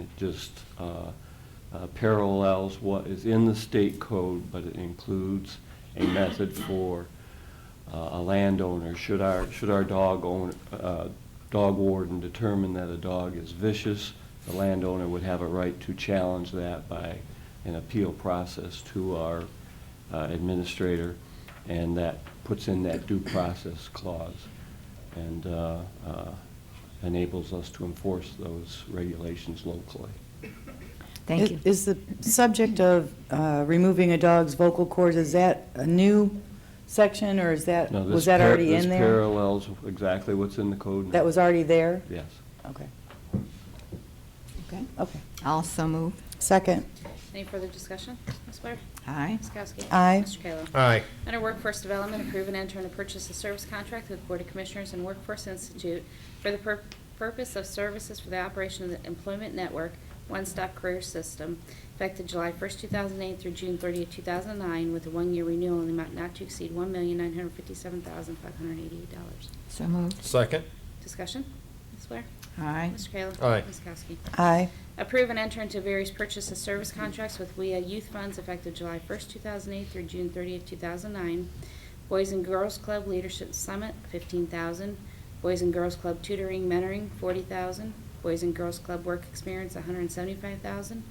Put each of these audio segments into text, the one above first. It just uh, uh, parallels what is in the state code, but it includes a method for uh, a landowner, should our, should our dog own, uh, dog warden determine that a dog is vicious, the landowner would have a right to challenge that by an appeal process to our uh, administrator, and that puts in that due process clause and uh, uh, enables us to enforce those regulations locally. Thank Is- you. Is the subject of uh, removing a dog's vocal cords, is that a new section, or is that, Now, this was that par- already in This there? parallels exactly what's in the code now. That was already there? Yes. Okay, Okay. okay. Also move. Second, Any further discussion? Ms. Blair? Aye. Ms. Kowski? Aye. Mr. Kayla? Aye. Under Workforce Development, approve and enter in a purchase of service contract with Board of Commissioners and Workforce Institute for the pur- purpose of services for the operation of the Employment Network One Stop Career System, effective July 1st, 2008 through June 30th, 2009, with a one-year renewal in the amount not to exceed $1,957,588. So move. Second. Discussion? Ms. Blair? Aye. Mr. Kayla? Aye. Ms. Kowski? aye, Approve and enter into various purchase and service contracts with WEA Youth Funds effective July 1st, 2008 through June 30th, 2009. Boys and Girls Club Leadership Summit, 15000 Boys and Girls Club Tutoring Mentoring, 40000 Boys and Girls Club Work Experience, 175000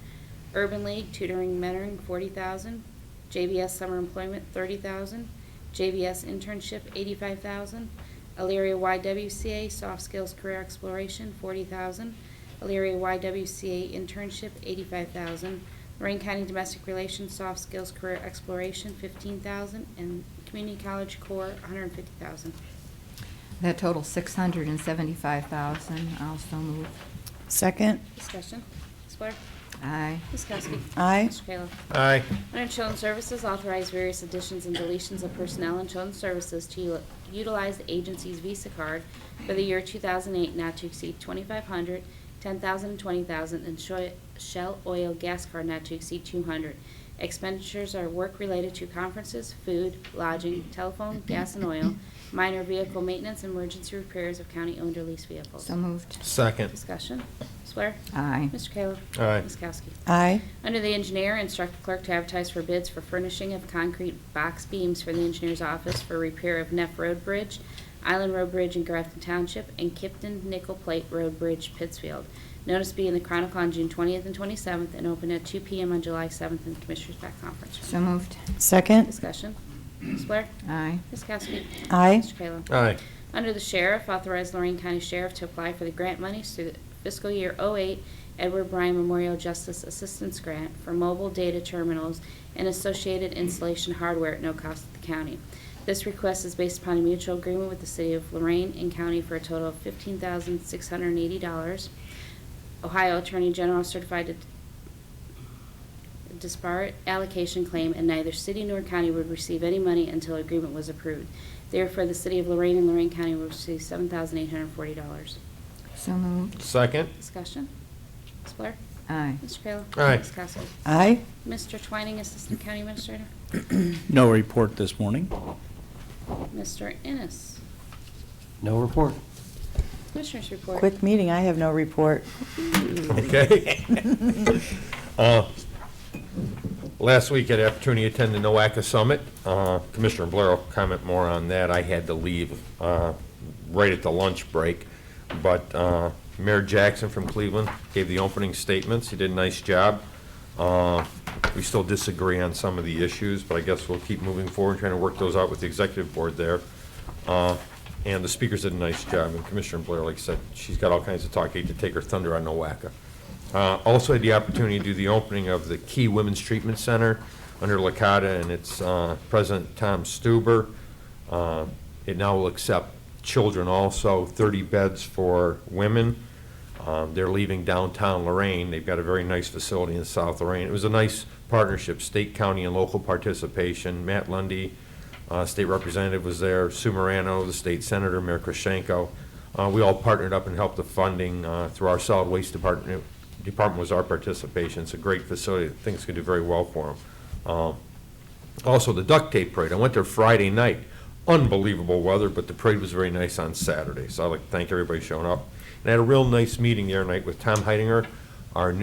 Urban League Tutoring Mentoring, 40000 JBS Summer Employment, 30000 JBS Internship, 85000 Elyria YWCA Soft Skills Career Exploration, 40000 Elyria YWCA Internship, 85000 Lorraine County Domestic Relations Soft Skills Career Exploration, 15000 and Community College Core, 150000 That total 675,000. Also move. second, Discussion. Ms. Blair? Aye. Ms. Kowski? Aye. Mr. Kayla? Aye. Under Children's Services, authorize various additions and deletions of personnel in Children's Services to u- utilize the agency's Visa card for the year 2008 not to exceed 2,500, 10,000, and 20,000, and Shoi- Shell Oil Gas Card not to exceed 200. Expenditures are work related to conferences, food, lodging, telephone, gas and oil, minor vehicle maintenance, and emergency repairs of county-owned or leased vehicles. So moved. Second. Discussion. Ms. Blair? Aye. Mr. Kayla? Aye. Ms. Kowski? aye, Under the engineer, instruct the clerk to advertise for bids for furnishing of concrete box beams for the engineer's office for repair of Neff Road Bridge, Island Road Bridge in Grafton Township, and Kipton Nickel Plate Road Bridge, Pittsfield. Notice be in the Chronicle on June 20th and 27th, and open at 2 PM on July 7th in the Commissioners' Back Conference So Room. moved. second, Discussion. Ms. Blair? Aye. Ms. Kowski? Aye. Mr. Kayla? Aye. Under the Sheriff, authorize Lorraine County Sheriff to apply for the grant monies through the fiscal year '08 Edward Bryan Memorial Justice Assistance Grant for mobile data terminals and associated installation hardware at no cost to the county. This request is based upon a mutual agreement with the City of Lorraine and County for a total of $15,680. Ohio Attorney General certified to disparate allocation claim, and neither city nor county would receive any money until agreement was approved. Therefore, the city of Lorraine and Lorraine County will receive $7,840. So moved. Second. Discussion? Ms. Blair? Aye. Mr. Kayla? Aye. Ms. Kowski? aye, Mr. Twining, Assistant County Administrator. No report this morning. Mr. Ennis. No report. Commissioners report. quick meeting, I have no report. Okay. Uh, Last week, I had the opportunity to attend the NOACA Summit. Uh, Commissioner Blair will comment more on that. I had to leave uh, right at the lunch break. But uh, Mayor Jackson from Cleveland gave the opening statements. He did a nice job. Uh, We still disagree on some of the issues, but I guess we'll keep moving forward, trying to work those out with the executive board there. Uh, And the speakers did a nice job, and Commissioner Blair, like I said, she's got all kinds of talk, hate to take her thunder on NOACA. Uh, Also had the opportunity to do the opening of the Key Women's Treatment Center under Lakata, and it's uh, President Tom Stuber. Uh, It now will accept children also, 30 beds for women. Um, They're leaving downtown Lorraine. They've got a very nice facility in South Lorraine. It was a nice partnership, state, county, and local participation. Matt Lundy, uh, state representative, was there, Sue Morano, the state senator, Mayor Krashenko. Uh, We all partnered up and helped the funding uh, through our solid waste department. Department was our participation. It's a great facility. Things could do very well for Um, them. Also, the duct tape parade, I went there Friday night. Unbelievable weather, but the parade was very nice on Saturday, so I'd like to thank everybody showing up. And I had a real nice meeting the other night with Tom Heidinger, our new